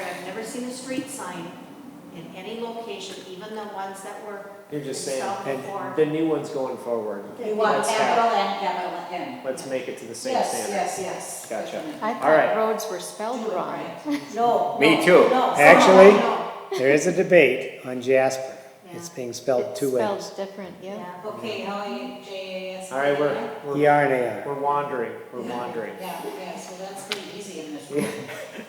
ever seen a street sign in any location, even the ones that were, You're just saying, Stop before. and the new one's going forward. You want Let's have- capital and capital N. Let's make it to the same Yes, standard. yes, yes. Gotcha. Definitely. I right. thought roads were spelled Do it wrong. right. No. Me no, too. no. Actually- No. There is a debate on Jasper. It's Yeah. being spelled two ways. Spelled different, yeah. yeah. Okay, how are you, J A S? All right, we're, E we're, R and A R. we're wandering, we're wandering. Yeah, yeah, so that's pretty easy in this Yeah. one.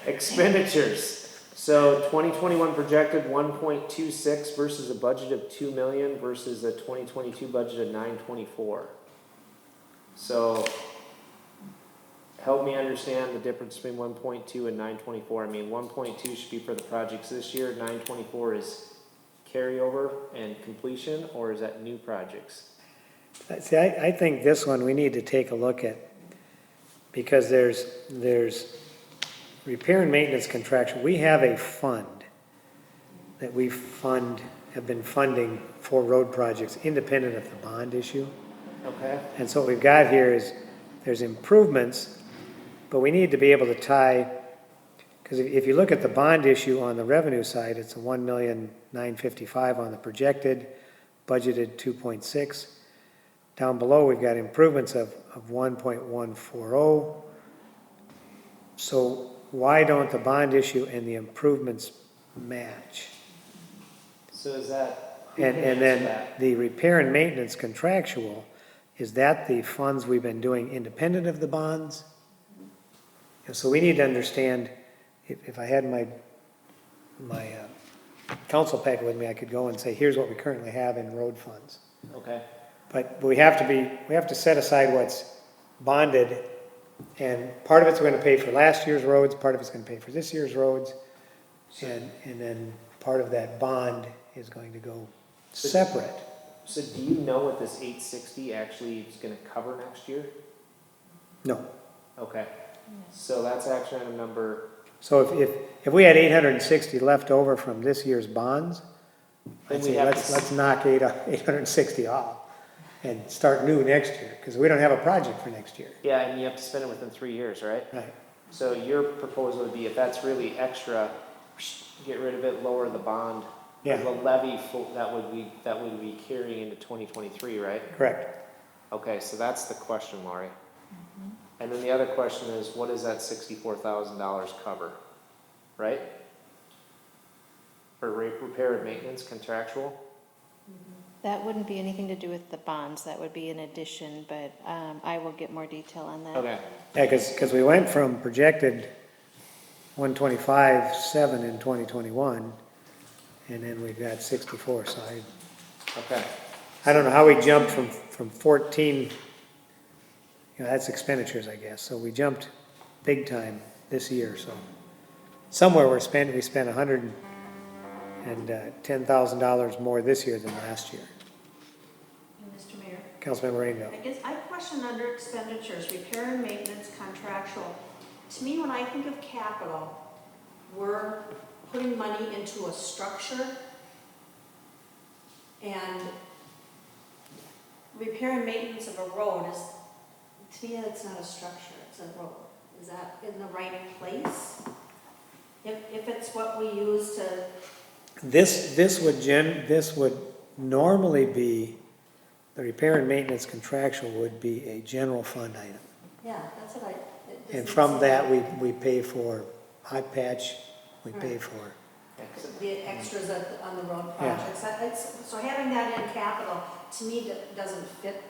Expenditures. So twenty twenty-one projected one point two six versus a budget of two million versus a twenty twenty-two budget of nine twenty-four. So help me understand the difference between one point two and nine twenty-four. I mean, one point two should be for the projects this year, nine twenty-four is carryover and completion, or is that new projects? See, I, I think this one we need to take a look at because there's, there's repair and maintenance contraction. We have a fund that we fund, have been funding for road projects independent of the bond issue. Okay, And so what we've got here is, there's improvements, but we need to be able to tie, because if, if you look at the bond issue on the revenue side, it's a one million nine fifty-five on the projected, budgeted two point six. Down below, we've got improvements of, of one point one four oh. So why don't the bond issue and the improvements match? so is that? who And, can and answer then that? the repair and maintenance contractual, is that the funds we've been doing independent of the bonds? And so we need to understand, if, if I had my, my, uh, council packet with me, I could go and say, here's what we currently have in road funds. Okay. But we have to be, we have to set aside what's bonded, and part of it's gonna pay for last year's roads, part of it's gonna pay for this year's roads, and, and then part of that bond is going to go separate. So do you know what this eight sixty actually is gonna cover next year? No. Okay, so that's action item number, So if, if, if we had eight hundred and sixty left over from this year's bonds, Then I'd we say have to let's, s- let's knock eight, eight hundred and sixty off and start new next year, because we don't have a project for next year. yeah, and you have to spend it within three years, right? Right. So your proposal would be if that's really extra, get rid of it, lower the bond. Yeah. The levy fo- that would be, that would be carrying into twenty twenty-three, right? Correct. Okay, so that's the question, Laurie. And then the other question is, what does that sixty-four thousand dollars cover, right? For re- repair and maintenance contractual? That wouldn't be anything to do with the bonds, that would be an addition, but um, I will get more detail on that. Okay, Yeah, because, we went from projected one twenty-five, seven in twenty twenty-one, and then we've got sixty-four, so I, okay. I don't know how we jumped from, from fourteen, you know, that's expenditures, I guess, so we jumped big time this year, so. Somewhere we're spending, we spent a hundred and uh, ten thousand dollars more this year than last year. Mr. Mayor, Councilmember I Rainville, guess I question under expenditures, repair and maintenance contractual. To me, when I think of capital, we're putting money into a structure. And repair and maintenance of a road is, to me, that's not a structure, it's a road. Is that in the right place? If, if it's what we use to this, this would gen, this would normally be, the repair and maintenance contractual would be a general fund item. Yeah, that's what I. it And doesn't from seem- that, we, we pay for hot patch, we pay for, The extras at the- on the road Yeah. projects, that- that's, so having that in capital, to me, do- doesn't fit.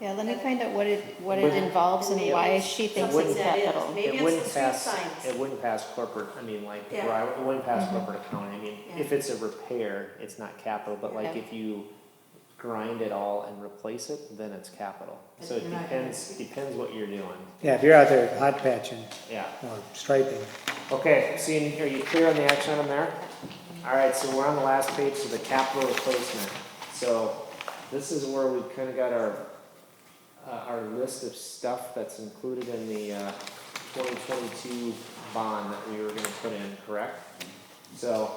Yeah, let me find out what it, what it Wouldn't- involves and why she thinks Something it's that is. capital. Maybe It it's the wouldn't street pass, signs. it wouldn't pass corporate, I mean, like, Yeah. Mm-hmm. where I- it wouldn't pass corporate accounting, I mean, if Yeah. it's a repair, it's not capital, but like Yeah. if you grind it all and replace it, then it's capital. But So it you're not gonna- depends, depends what you're doing, yeah, if you're out there hot patching yeah. or striping, Okay, seeing, are you clear on the action item there? All right, so we're on the last page, so the capital replacement. So this is where we kind of got our, uh, our list of stuff that's included in the, uh, twenty twenty-two bond that we were gonna put in, correct? So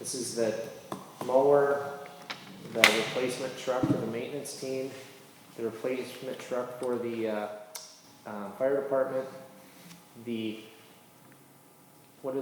this is the mower, the replacement truck for the maintenance team, the replacement truck for the, uh, uh, fire department, the